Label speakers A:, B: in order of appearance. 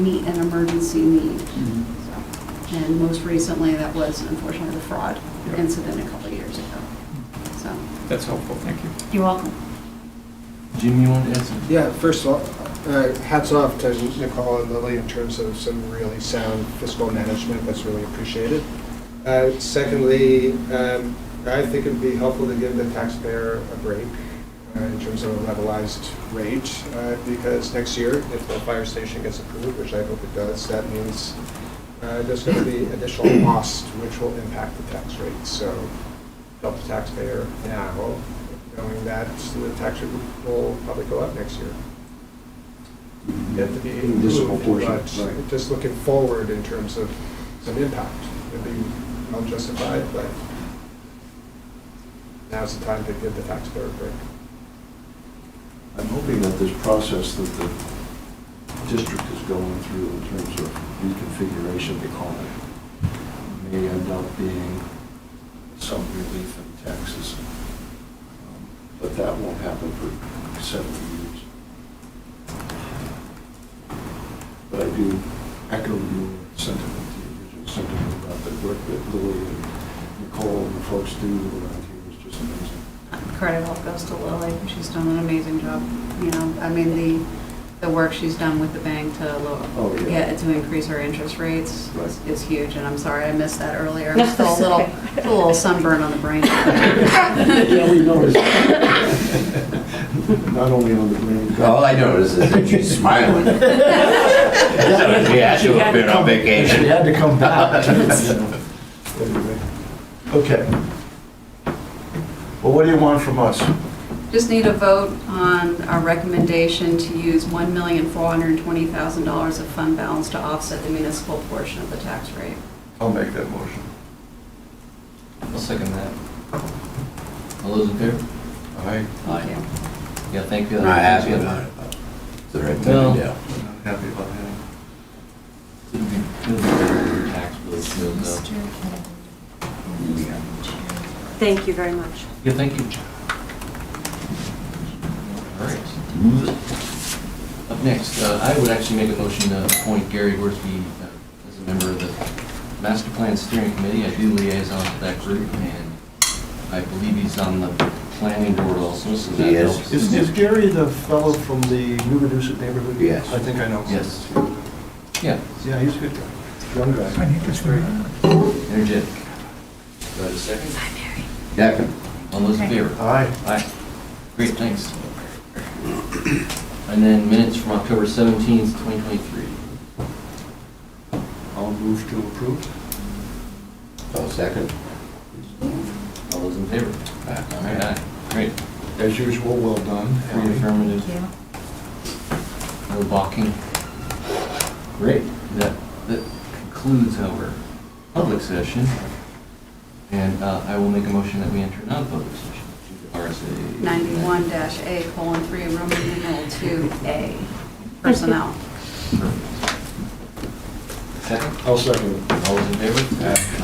A: meet an emergency need. So, And most recently, that was unfortunately the fraud
B: Yeah.
A: incident a couple of years ago. So,
B: That's helpful, thank you.
A: you're welcome.
C: Jim, you want to add something?
D: Yeah, first of all, uh, hats off to Nicole and Lily in terms of some really sound fiscal management, that's really appreciated. Uh, Secondly, um, I think it'd be helpful to give the taxpayer a break uh, in terms of a levelized rate, uh, because next year, if the fire station gets approved, which I hope it does, that means uh, there's going to be additional cost which will impact the tax rate. So help the taxpayer now, knowing that the tax rate will probably go up next year. Yet to be
E: Municipal
D: approved,
E: portion,
D: but
E: right.
D: just looking forward in terms of some impact. It'd be well justified, but now's the time to give the taxpayer a break.
E: I'm hoping that this process that the district is going through in terms of reconfiguration, they call it, may end up being some relief in taxes. Um, But that won't happen for several years. But I do echo your sentiment, the original sentiment about the work that Lily and Nicole and the folks do around here is just amazing.
A: Credit all goes to Lily, she's done an amazing job, you know, I mean, the, the work she's done with the bank to
E: Oh,
A: lower,
E: yeah.
A: get, to increase her interest rates
E: Right.
A: is- is huge, and I'm sorry, I missed that earlier.
F: No,
A: I'm still a
F: it's
A: little,
F: okay.
A: still a little sunburn on the brain.
E: Yeah, we noticed. Not only on the green.
G: All I noticed is that she's smiling. So, Yeah, she would have been on
C: She
G: vacation.
C: had to come back. you know.
E: Anyway. Okay. Well, what do you want from us?
A: Just need a vote on our recommendation to use $1,420,000 of fund balance to offset the municipal portion of the tax rate.
E: I'll make that motion.
C: I'll second that. All those in favor?
E: All right.
A: Thank you.
C: Yeah, thank you.
G: Not happy about it. but It's the right thing
C: No.
G: to do.
E: Happy about that.
C: It'll be- it'll be tax bill, bill, bill.
F: Thank you very much.
C: Yeah, thank you. All right. Up next, uh, I would actually make a motion to appoint Gary Worsby uh, as a member of the Master Plan Steering Committee. I do liaison to that group, and I believe he's on the planning board also, so that
G: He is.
C: helps.
E: Is, is Gary the fellow from the New Reduced neighborhood?
G: Yes.
E: I think I know. him.
C: Yes. Yeah,
E: Yeah, he's a good guy. Young guy.
C: energetic. Do I have a second?
G: Second.
C: All those in favor?
E: Aye.
C: Aye. Great, thanks. And then minutes from October 17th, 2023.
E: I'll move to approve.
G: Oh, second.
C: All those in favor?
G: Aye.
C: All right, aye. Great.
E: As usual, well done.
C: Three affirmative, no balking. Great. That, that concludes our public session. And uh, I will make a motion that we enter non-public session, RSA.
A: 91-A colon 3, Roman numeral 2A, personnel.
C: Perfect. Second,
E: I'll second it.
C: all those in favor?